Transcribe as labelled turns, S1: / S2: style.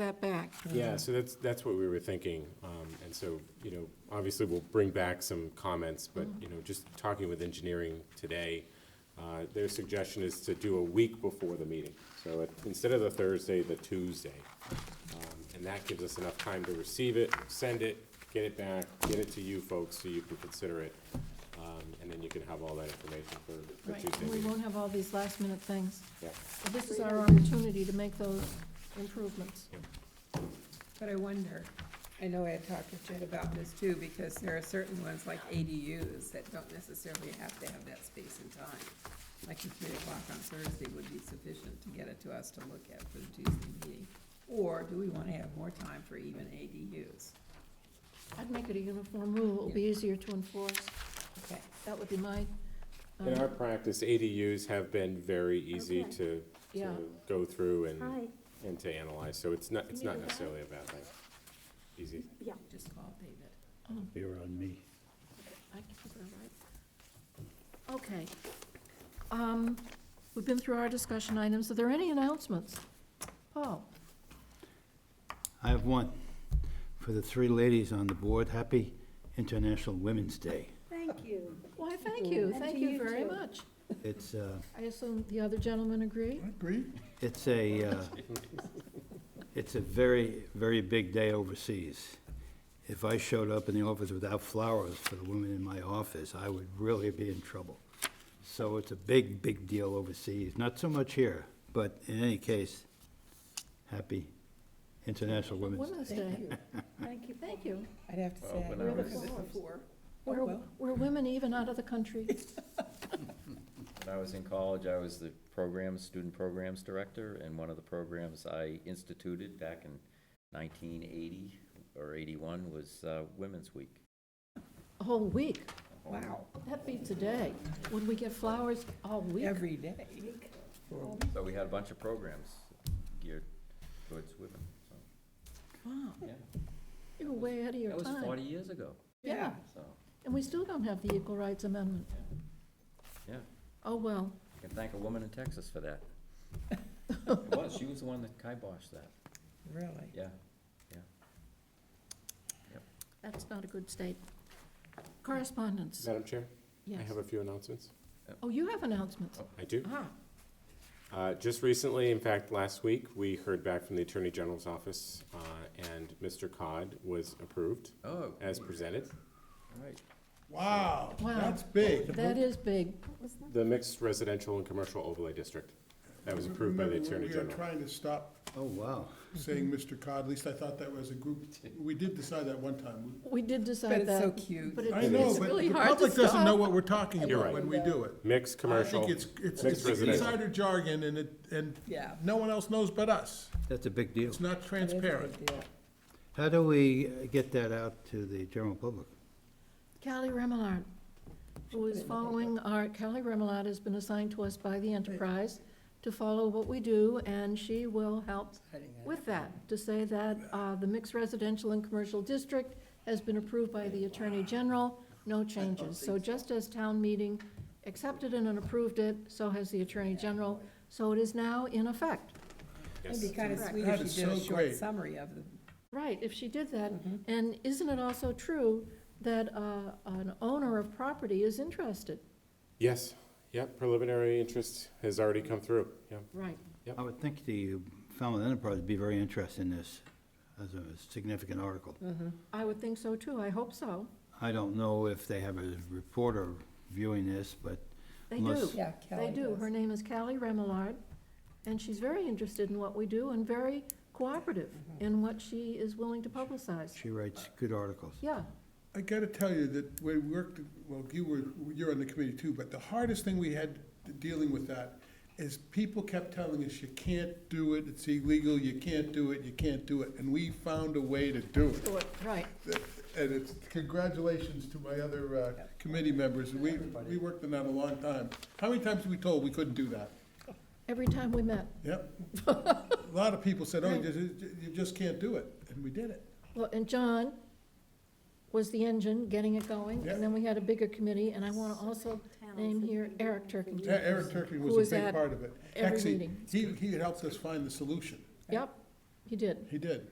S1: that back.
S2: Yeah, so that's, that's what we were thinking. Um, And so, you know, obviously, we'll bring back some comments, but,
S1: Mm-hmm.
S2: you know, just talking with engineering today, uh, their suggestion is to do a week before the meeting. So it- instead of the Thursday, the Tuesday. Um, And that gives us enough time to receive it, send it, get it back, get it to you folks so you can consider it. Um, And then you can have all that information for for Tuesday.
S1: We
S2: meeting.
S1: won't have all these last minute things.
S2: Yeah.
S1: But This is our opportunity to make those improvements.
S3: But I wonder, I know I had talked with Jed about this too, because there are certain ones like ADUs that don't necessarily have to have that space and time. Like the three o'clock on Thursday would be sufficient to get it to us to look at for the Tuesday meeting. Or do we wanna have more time for even ADUs?
S1: I'd make it a uniform rule, it'll be easier to enforce.
S3: Okay.
S1: That would be my, um,
S2: In our practice, ADUs have been very easy
S4: Okay.
S2: to,
S1: Yeah.
S2: to go through and.
S4: Hi,
S2: and to analyze, so it's not, it's
S4: You
S2: not
S4: do that?
S2: necessarily a bad thing. Easy.
S4: yeah,
S3: Just call David.
S5: You're on me.
S1: I can put that right. Okay. Um, We've been through our discussion items. Are there any announcements? Paul?
S5: I have one for the three ladies on the board. Happy International Women's Day.
S4: thank you.
S1: Why, thank you,
S4: And
S1: thank
S4: to
S1: you
S4: you
S1: very
S4: too.
S1: much.
S5: It's, uh,
S1: I assume the other gentlemen agree?
S5: it's a, uh, it's a very, very big day overseas. If I showed up in the office without flowers for the women in my office, I would really be in trouble. So it's a big, big deal overseas. Not so much here, but in any case, happy International Women's Day.
S1: Women's Day,
S4: Thank you.
S1: thank you. Oh,
S3: I'd have to say, I've
S1: I
S3: never
S1: was-
S3: heard this before.
S1: We're, we're women even out of the country.
S6: When I was in college, I was the programs, student programs director, and one of the programs I instituted back in nineteen eighty or eighty-one was uh, Women's Week.
S1: A whole week.
S3: Wow,
S1: That beats a day. Would we get flowers all week?
S3: every day.
S6: So we had a bunch of programs geared towards women, so.
S1: Wow,
S6: yeah.
S1: you were way ahead of your
S6: That
S1: time.
S6: was forty years ago,
S1: Yeah,
S6: so,
S1: and we still don't have the Equal Rights Amendment.
S6: yeah.
S1: Oh, well,
S6: I can thank a woman in Texas for that. It was, she was the one that kiboshed that,
S3: Really?
S6: yeah.
S1: that's not a good state. Correspondence,
S2: Madam Chair, I
S1: yes.
S2: have a few announcements.
S1: Oh, you have announcements.
S2: I do.
S1: Ah,
S2: Uh, Just recently, in fact, last week, we heard back from the Attorney General's office, uh, and Mr. Cod was approved
S6: Oh,
S2: as presented.
S6: all right.
S7: Wow,
S1: Wow.
S7: that's big.
S1: that is big.
S4: What was that?
S2: The mixed residential and commercial overlay district, that was approved by the
S7: Remember,
S2: Attorney
S7: We are
S2: General.
S7: trying to stop
S5: Oh, wow.
S7: saying Mr. Cod, at least I thought that was a group, we did decide that one time.
S1: We did
S3: But
S1: decide
S3: it's so
S1: that.
S3: cute.
S1: But it-
S7: I know,
S1: it's
S7: but the
S1: really hard to
S7: public doesn't know
S1: stop.
S7: what we're talking
S2: You're
S7: about
S2: right.
S7: when we do it.
S2: Mixed
S7: I
S2: commercial,
S7: think it's, it's
S2: mixed
S7: it's
S2: residential.
S7: insider jargon and it, and
S3: Yeah.
S7: no one else knows but us.
S5: That's a big deal.
S7: It's not transparent.
S5: How do we uh, get that out to the general public?
S1: Callie Remillard, who is following our, Callie Remillard has been assigned to us by the enterprise to follow what we do, and she will help with that, to say that uh, the mixed residential and commercial district has been approved by the Attorney General, no changes. So just as town meeting accepted it and approved it, so has the Attorney General, so it is now in effect.
S3: It'd be
S2: yes.
S3: kind of
S1: Correct.
S3: sweet
S7: That
S3: if
S7: is
S3: you did a
S7: so
S3: short
S7: great.
S3: summary of the mm-hmm.
S1: Right, if she did that, and isn't it also true that uh, an owner of property is interested?
S2: Yes, yep, preliminary interest has already come through, yep.
S1: Right.
S5: I would think the Falmouth Enterprise would be very interested in this as a significant article.
S1: I would think so too, I hope so.
S5: I don't know if they have a reporter viewing this, but
S1: They do.
S5: Unless-
S3: Yeah, Kelly
S1: They do.
S3: does.
S1: Her name is Callie Remillard, and she's very interested in what we do and very cooperative
S3: Mm-hmm.
S1: in what she is willing to publicize.
S5: she writes good articles.
S1: Yeah,
S7: I gotta tell you that we worked, well, you were, you're on the committee too, but the hardest thing we had dealing with that is people kept telling us, you can't do it, it's illegal, you can't do it, you can't do it, and we found a way to do it.
S1: right.
S7: And it's, congratulations to my other uh, committee members, we, we worked on that a long time. How many times were we told we couldn't do that?
S1: Every time we met.
S7: Yep. A lot of people said, oh, you just, you just can't do it, and we did it.
S1: Well, and John was the engine, getting it going, and then we had a bigger committee, and I want to also name here Eric
S7: Yeah,
S1: Turkington.
S7: Eric Turkey
S1: Who was
S7: was a
S1: at
S7: big part of it.
S1: every
S7: Actually,
S1: meeting.
S7: he, he had helped us find the solution.
S1: Yep, He did.
S7: He did.